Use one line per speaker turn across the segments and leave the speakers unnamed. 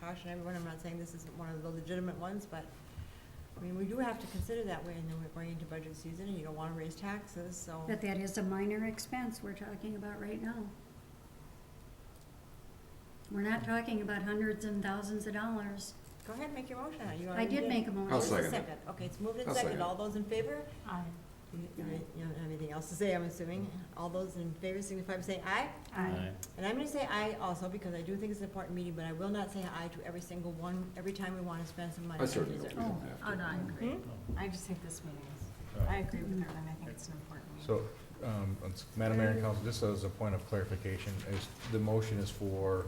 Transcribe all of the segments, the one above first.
caution everyone, I'm not saying this isn't one of the legitimate ones, but, I mean, we do have to consider that way, and then we're going into budget season, and you don't wanna raise taxes, so.
But that is a minor expense we're talking about right now. We're not talking about hundreds and thousands of dollars.
Go ahead, and make your motion. You
I
already
did make a
Oh,
I'll
it's
motion.
second it.
Okay, it's moved and
I'll
seconded.
second it.
All those in favor?
Aye.
You you don't you don't have anything else to say, I'm assuming. All those in favor signify by saying aye.
Aye.
And I'm gonna say aye also, because I do think it's an important meeting, but I will not say aye to every single one, every time we wanna spend some money.
I
on
certainly don't
dessert.
think
Oh,
we have to.
Oh, no, I agree.
Hmm?
I just think this meeting is, I agree with her, and I think it's an important meeting.
So, um, it's- Madam Mayor and Council, just as a point of clarification, is, the motion is for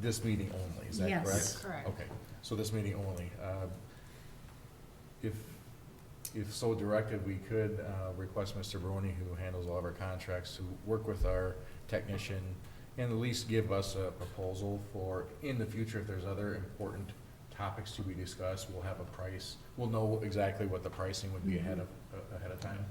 this meeting only, is that correct?
Yes.
Correct.
Okay, so this meeting only. Uh, If, if so directed, we could uh, request Mr. Barone, who handles all of our contracts, to work with our technician and at least give us a proposal for, in the future, if there's other important topics to be discussed, we'll have a price. We'll know exactly what the pricing would be ahead of, uh, ahead of time.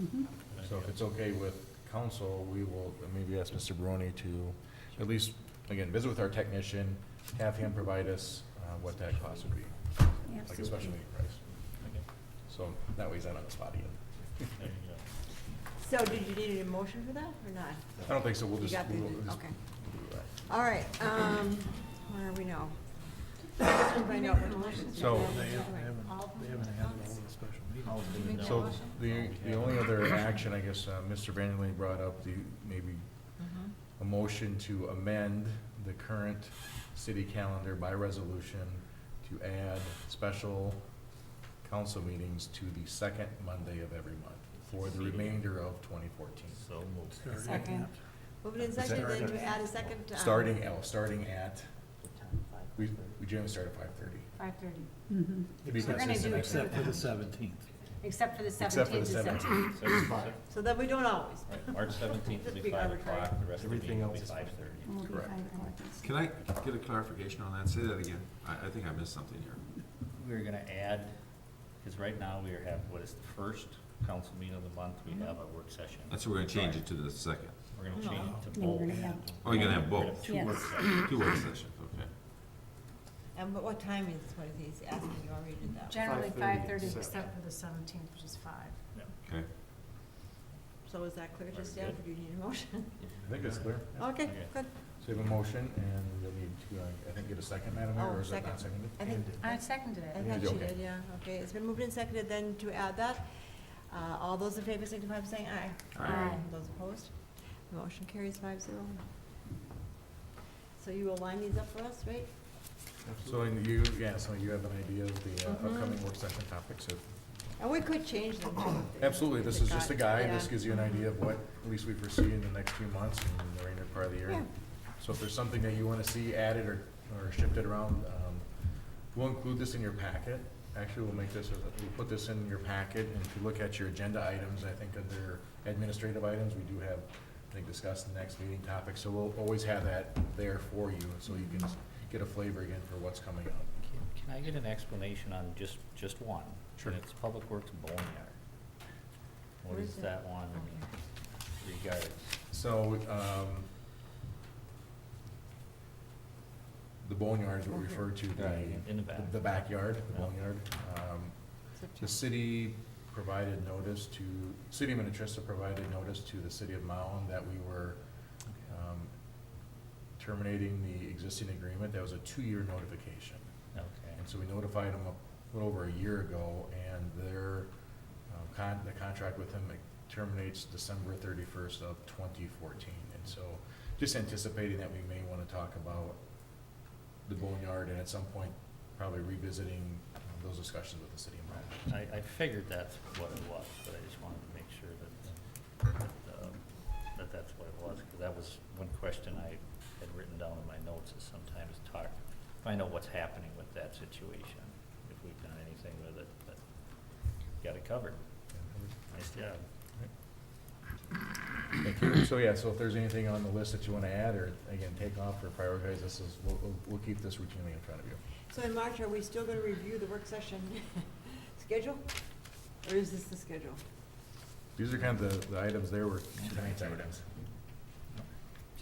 Mhm.
So if it's okay with council, we will maybe ask Mr. Barone to at least, again, visit with our technician, have him provide us uh, what that cost would be, like a special
Absolutely.
meeting price. So that way he's not on the spot yet.
So did you need a motion for that or not?
I don't think so, we'll
You
just.
got the,
we'll just-
okay. All right, um, where are we now? Find out what motions.
So-
we have.
They
All right.
haven't,
All of
they
them
haven't
at
had all
once?
the special meetings.
Did you make that
So
motion?
the, the only other action, I guess, uh, Mr. Vanderleen brought up, the, maybe
Mhm.
a motion to amend the current city calendar by resolution to add special council meetings to the second Monday of every month for the remainder of twenty fourteen.
So
Starting
moved.
Second.
at-
Moving in second, then to add a second. um,
Starting, oh, starting at, we, we generally start at five thirty.
Five thirty,
Mhm.
To be
We're gonna
consistent,
do
I
it
think.
Except for the seventeenth.
except for the
Except for
seventeenth
the
and
seventeenth.
seventeenth.
So that we don't always.
Right, March seventeenth will be
Just
five
arbitrary.
o'clock, the rest of the
Everything
meeting will be
else is
five thirty.
Will be
Correct.
five hours.
Can I get a clarification on that? Say that again. I, I think I missed something here.
We're gonna add, because right now we have, what is the first council meeting of the month, we have a work session.
That's what we're gonna change it to the second.
We're gonna change it to
No,
both.
we're gonna have-
Oh, you're gonna have
We're
both.
Two work
Yes.
sessions.
Two work sessions, okay.
And what, what time is, what is he's asking, you already did that.
Generally
5:30,
five thirty,
except-
except for the seventeenth, which is five.
Okay.
So is that clear to
Very
staff,
good.
or do you need a motion?
I think that's clear.
Okay,
Okay.
good.
So we have a motion and you'll need to, uh, I think, get a second, Madam Mayor,
Oh,
or is it
second.
not seconded?
I think,
I seconded
I
it.
think
Yeah,
she
okay.
did, yeah, okay, it's been moved and seconded then to add that. Uh, all those in favor signify by saying aye.
Aye.
Aye.
Those opposed? Motion carries five zero. So you will line these up for us, right?
So, and you, yeah, so you have an idea of the uh,
Mhm.
upcoming work session topics, if
And we could change them too. if-
Absolutely,
if
this
it
is just a
got-
guide,
yeah.
this gives you an idea of what, at least we foresee in the next few months and the remainder part of the
Yeah.
year. So if there's something that you wanna see added or, or shifted around, um, we'll include this in your packet. Actually, we'll make this, as a- we'll put this in your packet, and if you look at your agenda items, I think under administrative items, we do have, I think, discussed the next meeting topic, so we'll always have that there for you, so you can s- get a flavor again for what's coming up.
Can- Can I get an explanation on just, just one?
Sure.
And it's Public Works Boneyard. What
Where
is
is it?
that one regards?
So, um, the boneyard is what we refer to, the,
In the back.
the backyard, the
Yeah.
boneyard. Um, The
September.
city provided notice to, city of Minnetrista provided notice to the city of Mound that we were, um, terminating the existing agreement. That was a two-year notification.
Okay.
And so we notified them a little over a year ago, and their, um, con, the contract with them terminates December thirty-first of twenty fourteen. And so, just anticipating that we may wanna talk about the boneyard, and at some point, probably revisiting um, those discussions with the city of Mountain.
I, I figured that's what it was, but I just wanted to make sure that, that, um, that that's what it was, because that was one question I had written down in my notes, is sometimes talk, find out what's happening with that situation, if we've done anything with it, but got it covered. Nice job.
Thank you. So, yeah, so if there's anything on the list that you wanna add, or again, take off or prioritize, this is, we'll, we'll- we'll keep this routinely in front of you.
So in March, are we still gonna review the work session schedule? Or is this the schedule?
These are kind of the, the items there were tonight's items.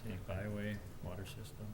Scenic Byway, water system.